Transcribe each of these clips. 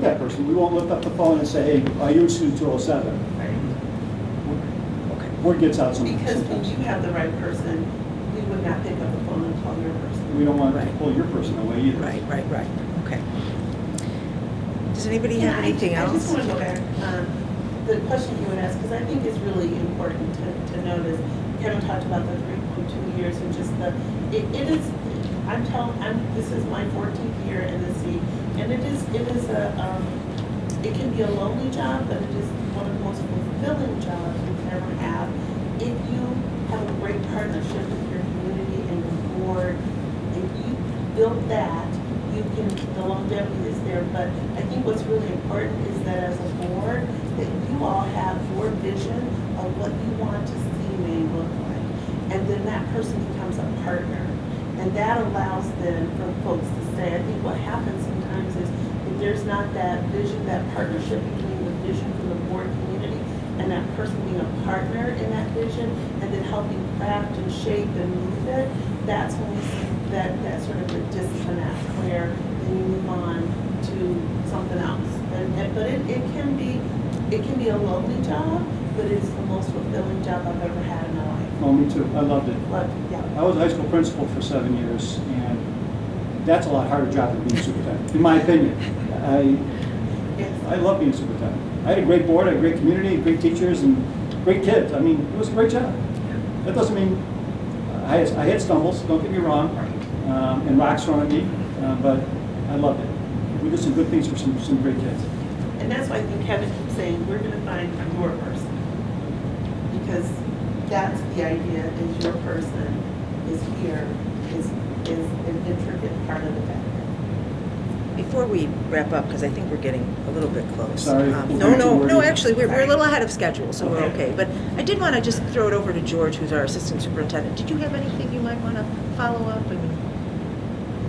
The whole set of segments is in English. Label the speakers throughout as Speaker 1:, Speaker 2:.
Speaker 1: person, we won't lift up the phone and say, hey, are you student 207?
Speaker 2: Right.
Speaker 1: Word gets out some-
Speaker 2: Because we
Speaker 1: sometimes.
Speaker 2: do have the right person, we would not pick up the phone and call your person.
Speaker 1: We don't want to
Speaker 3: Right.
Speaker 1: pull your person away either.
Speaker 3: Right, right, right, okay. Does anybody have
Speaker 2: And I-
Speaker 3: anything
Speaker 2: I just
Speaker 3: else?
Speaker 2: want to go back, um, the question you had asked, because I think it's really important to, to notice. Kevin talked about the three point two years and just the, it, it is, I'm telling, I'm, this is my fourteenth year in the seat. And it is, it is a, um, it can be a lonely job, but it is one of the most fulfilling jobs you can ever have. If you have a great partnership with your community and your board, if you build that, you can, the longevity is there. But I think what's really important is that as a board, that you all have your vision of what you want to see Maine look like. And then that person becomes a partner. And that allows then for folks to stay. I think what happens sometimes is if there's not that vision, that partnership between the vision for the board community and that person being a partner in that vision and then helping craft and shape and move it, that's when we see that, that sort of a disconnect where then you move on to something else. And, and- but it, it can be, it can be a lonely job, but it's the most fulfilling job I've ever had in my life.
Speaker 1: Oh, me too, I loved it.
Speaker 2: But, yeah,
Speaker 1: I was a high school principal for seven years, and that's a lot harder job than being superintendent, in my opinion. I,
Speaker 2: yes.
Speaker 1: I love being superintendent. I had a great board, I had a great community, great teachers, and great kids. I mean, it was a great job. That doesn't mean, uh, I had, I had stumbles, don't get me wrong, um, and rocks thrown at me, uh, but I loved it. We did some good things for some, some great kids.
Speaker 2: And that's why I think Kevin keeps saying, we're gonna find your person. Because that's the idea, is your person is here, is, is an intricate part of the fabric.
Speaker 3: Before we wrap up, because I think we're getting a little bit close.
Speaker 1: Sorry,
Speaker 3: Um,
Speaker 1: we're
Speaker 3: No,
Speaker 1: getting too
Speaker 3: no, no,
Speaker 1: wordy.
Speaker 3: actually, we're, we're a
Speaker 2: Sorry.
Speaker 3: little ahead of schedule, so we're
Speaker 2: Okay.
Speaker 3: okay. But I did want to just throw it over to George, who's our assistant superintendent. Did you have anything you might want to follow up? I mean,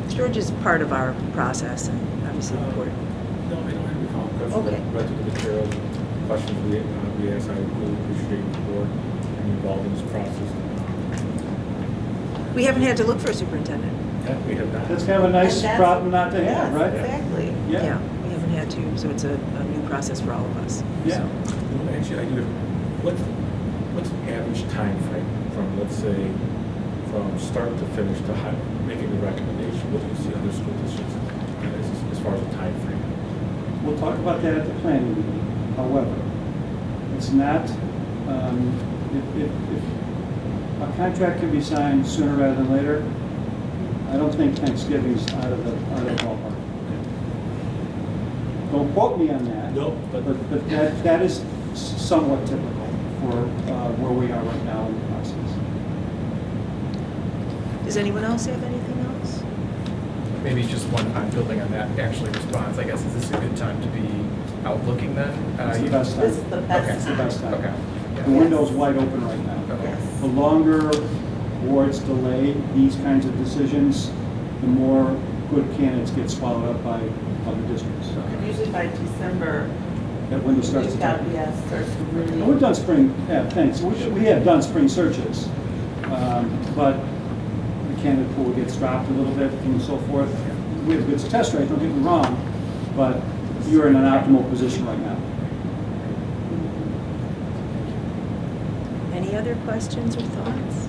Speaker 3: George is part of our process and obviously
Speaker 1: Uh,
Speaker 3: important.
Speaker 4: No, I don't have any comments.
Speaker 3: Okay.
Speaker 4: Read through the material, questions we, uh, we asked, I really appreciate the board being involved in this process.
Speaker 3: We haven't had to look for a superintendent.
Speaker 4: That we have not.
Speaker 1: That's kind of a nice
Speaker 2: And that's-
Speaker 1: problem not to have,
Speaker 2: Yes,
Speaker 1: right?
Speaker 2: Exactly.
Speaker 1: Yeah,
Speaker 3: We haven't had to, so it's a, a new process for all of us.
Speaker 1: yeah.
Speaker 4: Well, Actually, I do have, what's, what's the average time frame from, let's say, from start to finish to hi- making the recommendation? What do you see other school districts uh, as, as far as a timeframe?
Speaker 1: We'll talk about that at the planning meeting. However, it's not, um, if, if, if a contract can be signed sooner rather than later, I don't think Thanksgiving's out of the, out of the ballpark. Don't quote me on that.
Speaker 4: No, but-
Speaker 1: But, but that, that is somewhat typical for, uh, where we are right now in the process.
Speaker 3: Does anyone else have anything else?
Speaker 5: Maybe just one, I'm building on that actually response, I guess, is this a good time to be out looking then? Uh,
Speaker 1: It's the
Speaker 5: you-
Speaker 1: best
Speaker 2: This is
Speaker 1: time.
Speaker 2: the
Speaker 1: It's
Speaker 2: best
Speaker 1: the
Speaker 2: time.
Speaker 1: best time.
Speaker 5: Okay.
Speaker 1: The
Speaker 5: yeah.
Speaker 1: window's wide open right now.
Speaker 5: Okay.
Speaker 1: The
Speaker 2: Yes.
Speaker 1: longer boards delay these kinds of decisions, the more good candidates get swallowed up by other districts.
Speaker 2: And Usually by December,
Speaker 1: That window
Speaker 2: we've
Speaker 1: starts to
Speaker 2: got,
Speaker 1: tighten.
Speaker 2: yes, starts to
Speaker 1: And We've
Speaker 2: really.
Speaker 1: done spring, yeah, thanks, we should- we have done spring searches, um, but the candidate pool gets dropped a little bit and so forth. We have a good success rate, don't get me wrong, but you're in an optimal position right now.
Speaker 3: Any other questions or thoughts?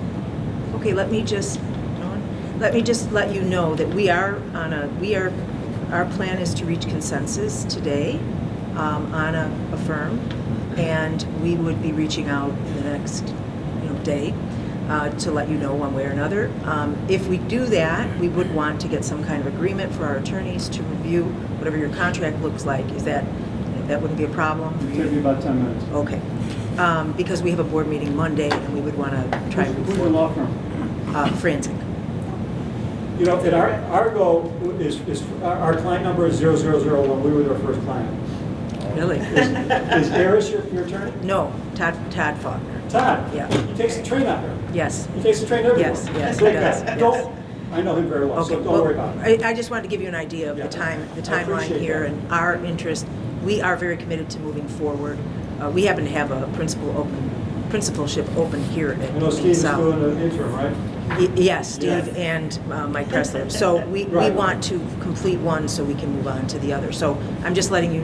Speaker 3: Okay, let me just, Dawn, let me just let you know that we are on a, we are, our plan is to reach consensus today um, on a, a firm, and we would be reaching out in the next, you know, day uh, to let you know one way or another. Um, If we do that, we would want to get some kind of agreement for our attorneys to review whatever your contract looks like. Is that, that wouldn't be a problem for you?
Speaker 1: It'll take me about 10 minutes.
Speaker 3: Okay, Um, because we have a board meeting Monday, and we would want to try and
Speaker 1: Who's your law firm?
Speaker 3: uh, Frantic.
Speaker 1: You know, and our, our goal is, is, our our client number is 0001, we were their first client.
Speaker 3: Really?
Speaker 1: Is is Eris your, your attorney?
Speaker 3: No, Todd, Todd Faulkner.
Speaker 1: Todd?
Speaker 3: Yeah.
Speaker 1: He takes the train out there.
Speaker 3: Yes.
Speaker 1: He takes the train everywhere.
Speaker 3: Yes, yes, he
Speaker 1: Great
Speaker 3: does,
Speaker 1: guy.
Speaker 3: yes.
Speaker 1: Don't, I know him very well,
Speaker 3: Okay.
Speaker 1: so don't
Speaker 3: well,
Speaker 1: worry about it.
Speaker 3: I, I just wanted to give you an idea of
Speaker 1: Yeah.
Speaker 3: the time, the
Speaker 1: I
Speaker 3: timeline
Speaker 1: appreciate
Speaker 3: here
Speaker 1: that.
Speaker 3: and our interest. We are very committed to moving forward. Uh, We happen to have a principal open, principalship open here at
Speaker 1: I know Steve's
Speaker 3: South.
Speaker 1: doing an interim, right?
Speaker 3: Y- Yes, Steve
Speaker 1: Yes.
Speaker 3: and uh, Mike Pressler. So we, we
Speaker 1: Right.
Speaker 3: want to complete one so we can move on to the other. So I'm just letting you